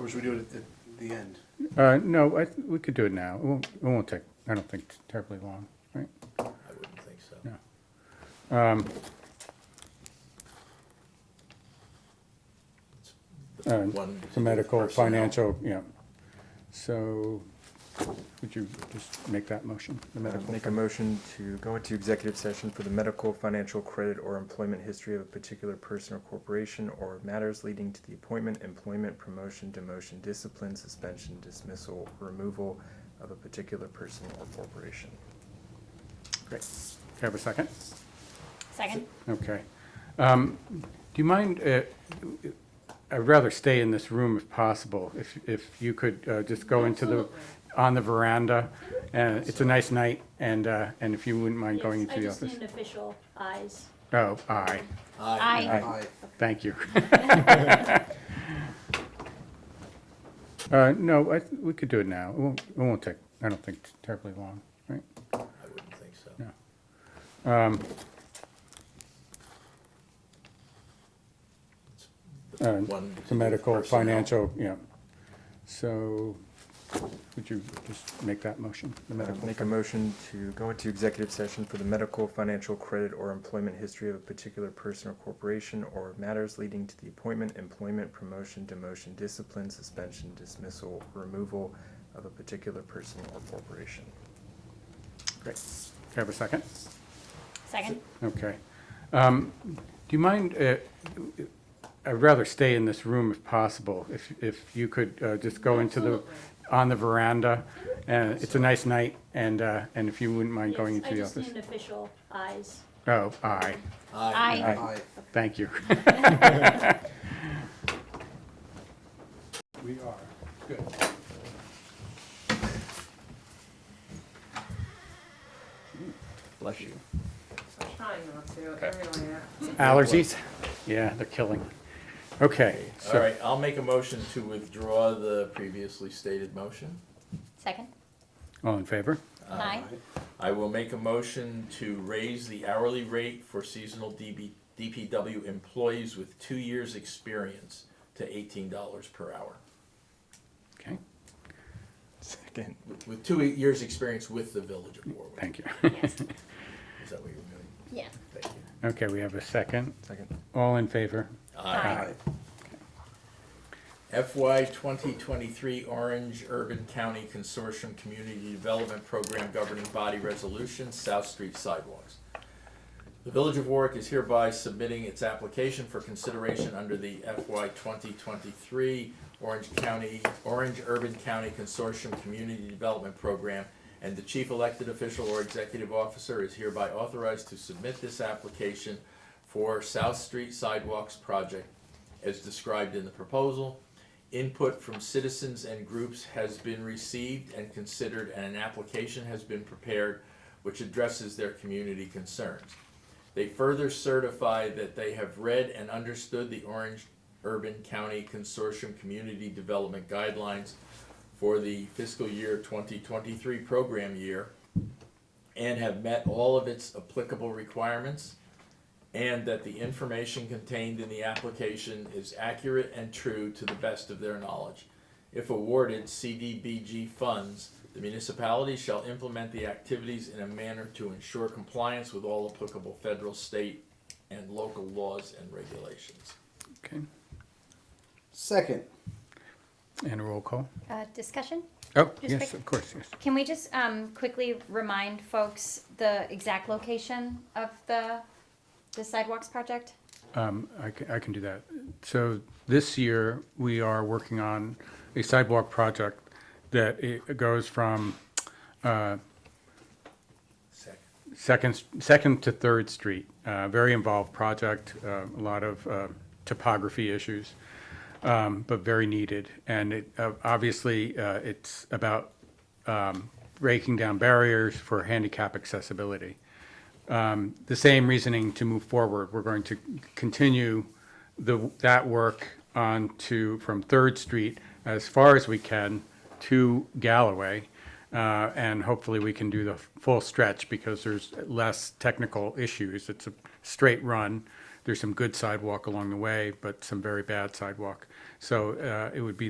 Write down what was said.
Or should we do it at the- the end? Uh, no, I, th- we could do it now. It won't, it won't take, I don't think terribly long, right? I wouldn't think so. No. The Uh, one The medical, personnel. financial, yeah. So, would you just make that motion? The Uh, medical, Make a motion to go into executive session for the medical, financial, credit, or employment history of a particular person or corporation or matters leading to the appointment, employment, promotion, demotion, discipline, suspension, dismissal, removal of a particular person or corporation. great. Have a second? Second? Okay. Um, Do you mind, uh, I'd rather stay in this room if possible, if, if you could uh, just go into the, on the veranda. Uh, It's a nice night, and, uh, and if you wouldn't mind going Yes, into the I office. just need official eyes. Oh, aye, Aye. Aye. Aye. thank you. Uh, No, I, th- we could do it now. It won't, it won't take, I don't think terribly long, right? I wouldn't think so. No. The Uh, one The particular medical, personnel. financial, yeah. So, would you just make that motion? The Uh, medical, Make a motion to go into executive session for the medical, financial, credit, or employment history of a particular person or corporation or matters leading to the appointment, employment, promotion, demotion, discipline, suspension, dismissal, removal of a particular person or corporation. great. Have a second? Second? Okay. Um, Do you mind, uh, I'd rather stay in this room if possible, if, if you could uh, just go into the, on the veranda. Uh, It's a nice night, and, uh, and if you wouldn't mind going Yes, into the I office. just need official eyes. Oh, aye, Aye. Aye. Aye. thank you. We are, good. Bless you. I'm trying not to, I really am. Allergies? Yeah, they're killing. Okay, All so, right, I'll make a motion to withdraw the previously stated motion. Second? all in favor? Aye. I will make a motion to raise the hourly rate for seasonal DB, DPW employees with two years' experience to eighteen dollars per hour. Okay, Second. With two years' experience with the Village of Warwick. thank you. Yes. Is that what you're doing? Yeah. Thank you. Okay, we have a second. Second. All in favor? Aye. FY 2023 Orange Urban County Consortium Community Development Program Governing Body Resolution, South Street Sidewalks. The Village of Warwick is hereby submitting its application for consideration under the FY 2023 Orange County, Orange Urban County Consortium Community Development Program, and the chief elected official or executive officer is hereby authorized to submit this application for South Street Sidewalks Project as described in the proposal. Input from citizens and groups has been received and considered, and an application has been prepared which addresses their community concerns. They further certify that they have read and understood the Orange Urban County Consortium Community Development Guidelines for the fiscal year 2023 program year and have met all of its applicable requirements and that the information contained in the application is accurate and true to the best of their knowledge. If awarded CDBG funds, the municipality shall implement the activities in a manner to ensure compliance with all applicable federal, state, and local laws and regulations. Okay, Second. and a roll call? Uh, discussion? Oh, Just yes, quick- of course, yes. Can we just um, quickly remind folks the exact location of the, the sidewalks project? Um, I can, I can do that. So this year, we are working on a sidewalk project that it goes from, uh, Second. Second, Second to Third Street, uh, very involved project, uh, a lot of uh, topography issues, um, but very needed. And it, uh, obviously, uh, it's about um, breaking down barriers for handicap accessibility. Um, The same reasoning to move forward, we're going to continue the, that work on to, from Third Street as far as we can to Galloway. Uh, and hopefully we can do the full stretch because there's less technical issues. It's a straight run. There's some good sidewalk along the way, but some very bad sidewalk. So uh, it would be